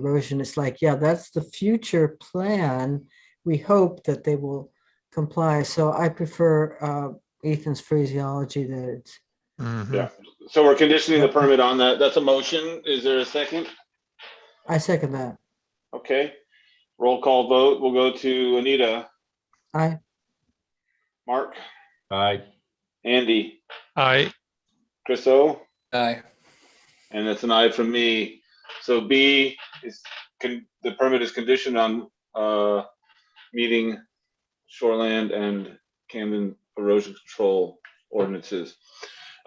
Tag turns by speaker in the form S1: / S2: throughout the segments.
S1: erosion is like, yeah, that's the future plan. We hope that they will comply. So I prefer uh, Ethan's phraseology that it's,
S2: Mhm.
S3: Yeah. So we're conditioning the permit on that. That's a motion. Is there a second?
S1: I second that.
S3: Okay. Roll call vote. We'll go to Anita,
S1: I,
S3: Mark,
S4: Aye.
S3: Andy,
S2: Aye,
S3: Chris O,
S5: Aye.
S3: and that's an aye from me. So B is, con- the permit is conditioned on uh, meeting shoreland and Camden erosion control ordinances.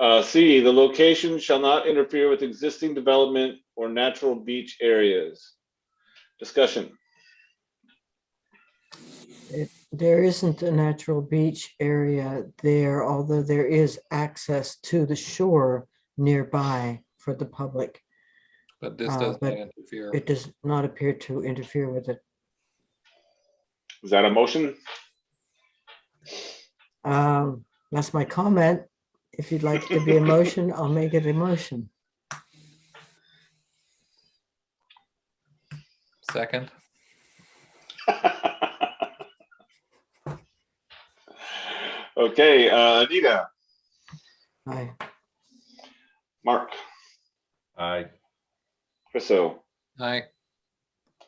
S3: Uh, C, the location shall not interfere with existing development or natural beach areas. Discussion.
S1: there isn't a natural beach area there, although there is access to the shore nearby for the public.
S5: But this
S1: Uh,
S5: doesn't
S1: but
S5: interfere.
S1: It does not appear to interfere with it.
S3: Is that a motion?
S1: Um, That's my comment. If you'd like to be a motion, I'll make it a motion.
S5: Second,
S3: Okay, uh, Anita,
S1: I,
S3: Mark,
S4: Aye.
S3: Chriso,
S5: aye.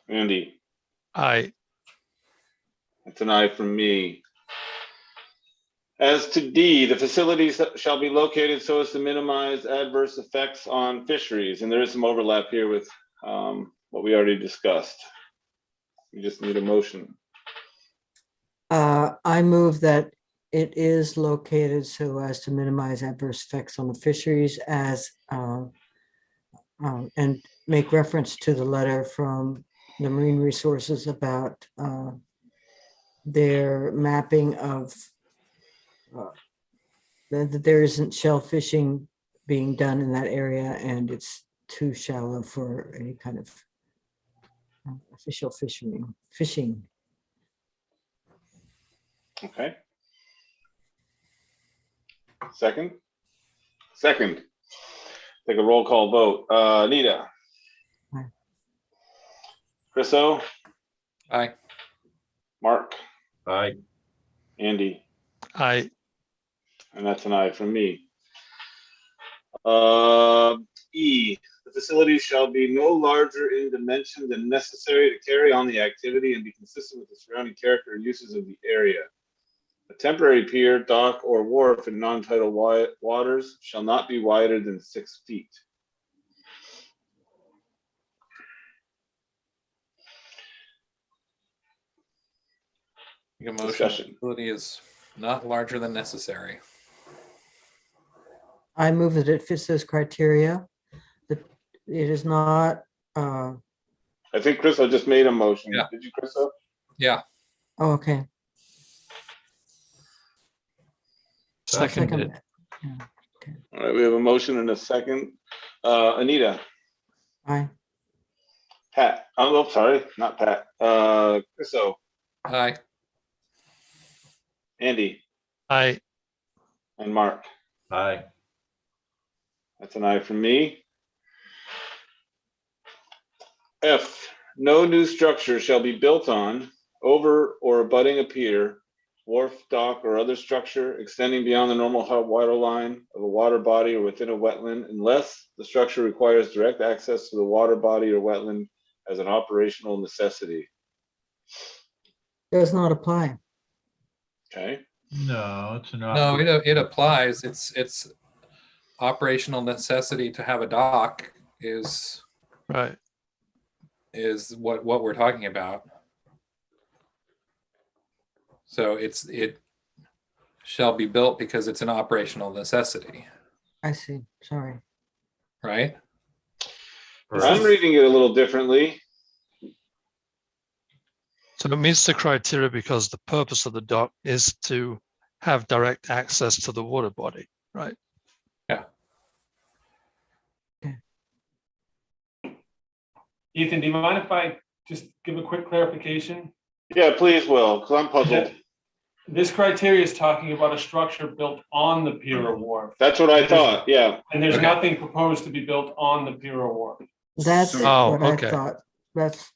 S3: Andy,
S2: aye,
S3: it's an aye from me. As to D, the facilities shall be located so as to minimize adverse effects on fisheries, and there is some overlap here with um, what we already discussed. We just need a motion.
S1: Uh, I move that it is located so as to minimize adverse effects on the fisheries as, uh, um, and make reference to the letter from the Marine Resources about uh, their mapping of uh, that that there isn't shell fishing being done in that area and it's too shallow for any kind of uh, official fishing, fishing.
S3: Okay. Second? Second. Take a roll call vote. Uh, Anita?
S1: Aye.
S3: Chris O,
S5: Aye.
S3: Mark,
S4: Aye.
S3: Andy,
S2: aye,
S3: and that's an aye from me. Uh, E, the facility shall be no larger in dimension than necessary to carry on the activity and be consistent with the surrounding character and uses of the area. A temporary pier, dock, or wharf in non-tidal wi- waters shall not be wider than six feet.
S5: Make a motion.
S3: Discussion.
S5: Facility is not larger than necessary.
S1: I move that it fits those criteria, that it is not, uh,
S3: I think Crystal just made a motion.
S5: Yeah.
S3: Did you, Crystal?
S5: Yeah,
S1: oh, okay.
S2: seconded it,
S1: second.
S3: All right, we have a motion and a second. Uh, Anita,
S1: Aye,
S3: Pat, oh, no, sorry, not Pat. Uh, Crystal,
S5: aye.
S3: Andy,
S2: aye,
S3: and Mark.
S4: Aye.
S3: That's an aye from me. F, no new structure shall be built on, over or abutting a pier, wharf, dock, or other structure extending beyond the normal high water line of a water body or within a wetland unless the structure requires direct access to the water body or wetland as an operational necessity.
S1: does not apply.
S3: Okay,
S4: No, it's not.
S5: No, it, it applies. It's, it's operational necessity to have a dock is,
S2: right,
S5: is what, what we're talking about. So it's, it shall be built because it's an operational necessity,
S1: I see, sorry.
S5: right?
S3: I'm reading it a little differently.
S2: so it meets the criteria because the purpose of the dock is to have direct access to the water body, right?
S6: Ethan, do you mind if I just give a quick clarification?
S3: Yeah, please, Will, because I'm puzzled.
S6: This criteria is talking about a structure built on the pier or wharf,
S3: That's what I thought, yeah.
S6: and there's
S5: Okay.
S6: nothing proposed to be built on the pier or wharf.
S1: That's
S2: Oh,
S1: what I
S2: okay.
S1: thought that's